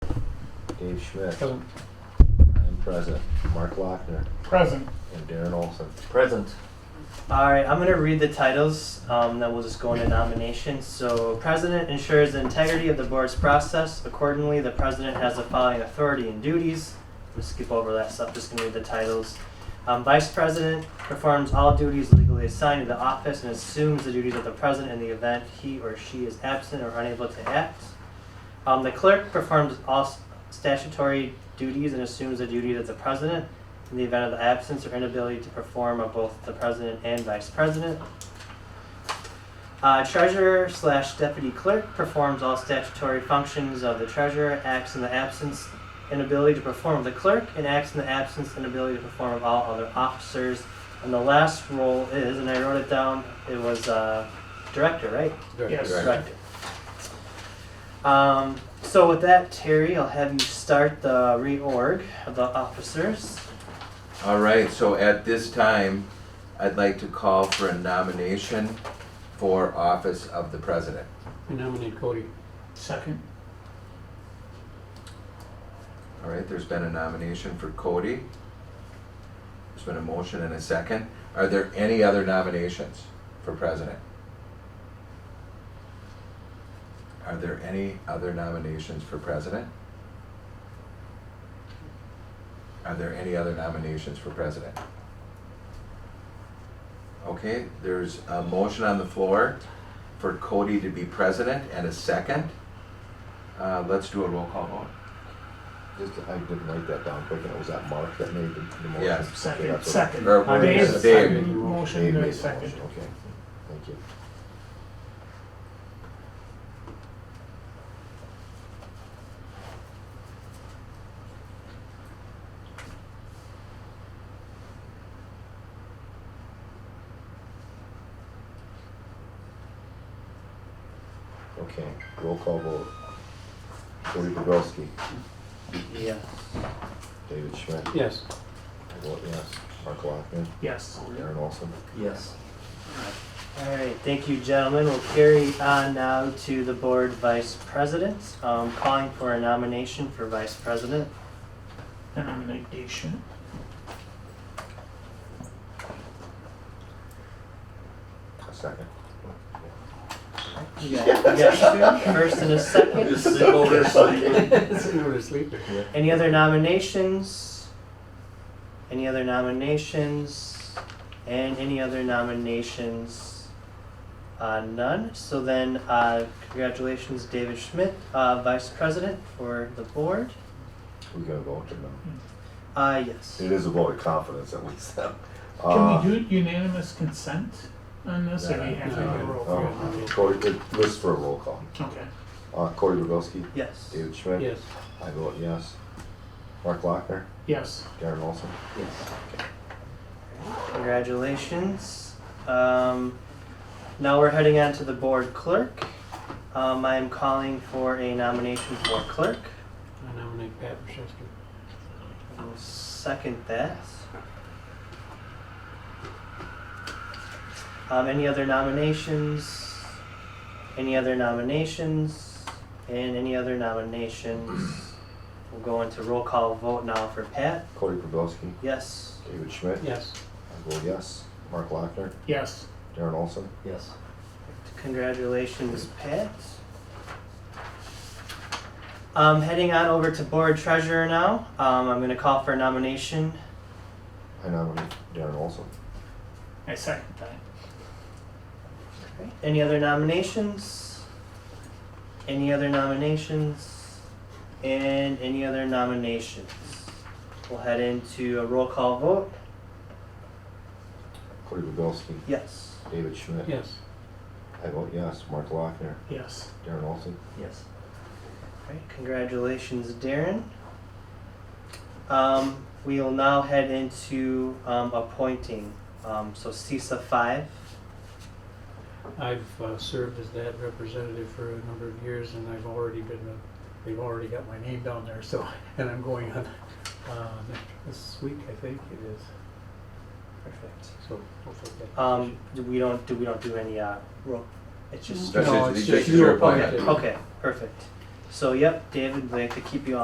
Dave Schmidt. Present. I am present. Mark Lochner Present. and Darren Olson. Present. All right, I'm gonna read the titles, um, then we'll just go into nominations. So, president ensures the integrity of the board's process. Accordingly, the president has the following authority and duties. I'm gonna skip over that stuff, just gonna read the titles. Um, vice president performs all duties legally assigned to the office and assumes the duties of the president in the event he or she is absent or unable to act. Um, the clerk performs all s- statutory duties and assumes the duties of the president in the event of the absence or inability to perform of both the president and vice president. Uh, treasurer slash deputy clerk performs all statutory functions of the treasurer, acts in the absence, inability to perform of the clerk, and acts in the absence, inability to perform of all other officers. And the last role is, and I wrote it down, it was uh, director, right? Yes. Director. Um, so with that, Terry, I'll have you start the reorg of the officers. All right, so at this time, I'd like to call for a nomination for office of the president. I nominate Cody. Second. All right, there's been a nomination for Cody. There's been a motion and a second. Are there any other nominations for president? Are there any other nominations for president? Are there any other nominations for president? Okay, there's a motion on the floor for Cody to be president and a second. Uh, let's do a roll call vote. Just, I didn't write that down quick, and it was that Mark that made the the motion. Yes. Okay, Second. that's what- Second. Or I wait, made it's the Dave. second Dave motion, made no the second. motion, Okay, thank you. Okay, roll call vote. Cody Bobrowski, Yeah. David Schmidt, Yes. I vote yes. Mark Lochner, Yes. Darren Olson. Yes. All right, thank you, gentlemen. We'll carry on now to the board vice president. Um, calling for a nomination for vice president. Nomination. A second. You got, you got two, first and a second. Sit over Any other nominations? Any other nominations? And any other nominations? Uh, none. So then, uh, congratulations, David Schmidt, uh, vice president for the board. We gotta vote or no? Uh, yes. It is a vote of confidence at least. Can Uh, Can we do unanimous consent on this, or do we have to do a roll call? Cody, Oh, it lists for a roll call. Okay. Uh, Cody Rubelski, Yes. David Schmidt. Yes. I vote yes. Mark Lochner, Yes. Darren Olson. Congratulations. Um, now we're heading on to the board clerk. Um, I am calling for a nomination for clerk. I nominate Pat Rashevsky. I will second that. Um, any other nominations? Any other nominations? And any other nominations? We'll go into roll call vote now for Pat. Cody Rubelski, Yes. David Schmidt. Yes. I vote yes. Mark Lochner, Yes. Darren Olson. Yes. Congratulations, Pat. Um, heading on over to board treasurer now. Um, I'm gonna call for a nomination. I nominate Darren Olson. I second that. Any other nominations? Any other nominations? And any other nominations? We'll head into a roll call vote. Cody Rubelski, Yes. David Schmidt. Yes. I vote yes. Mark Lochner, Yes. Darren Olson. Yes. Alright, congratulations, Darren. Um, we will now head into, um, appointing, um, so CISA five. I've uh, served as that representative for a number of years and I've already been, a- they've already got my name down there, so, and I'm going on uh, this week, I think it is. Perfect. So we'll take that. Um, do we don't, do we don't do any, uh, roll, it's just, That's No, just- it's just just you your appointed. appointment. okay, perfect. So, yep, David, we'd like to keep you on.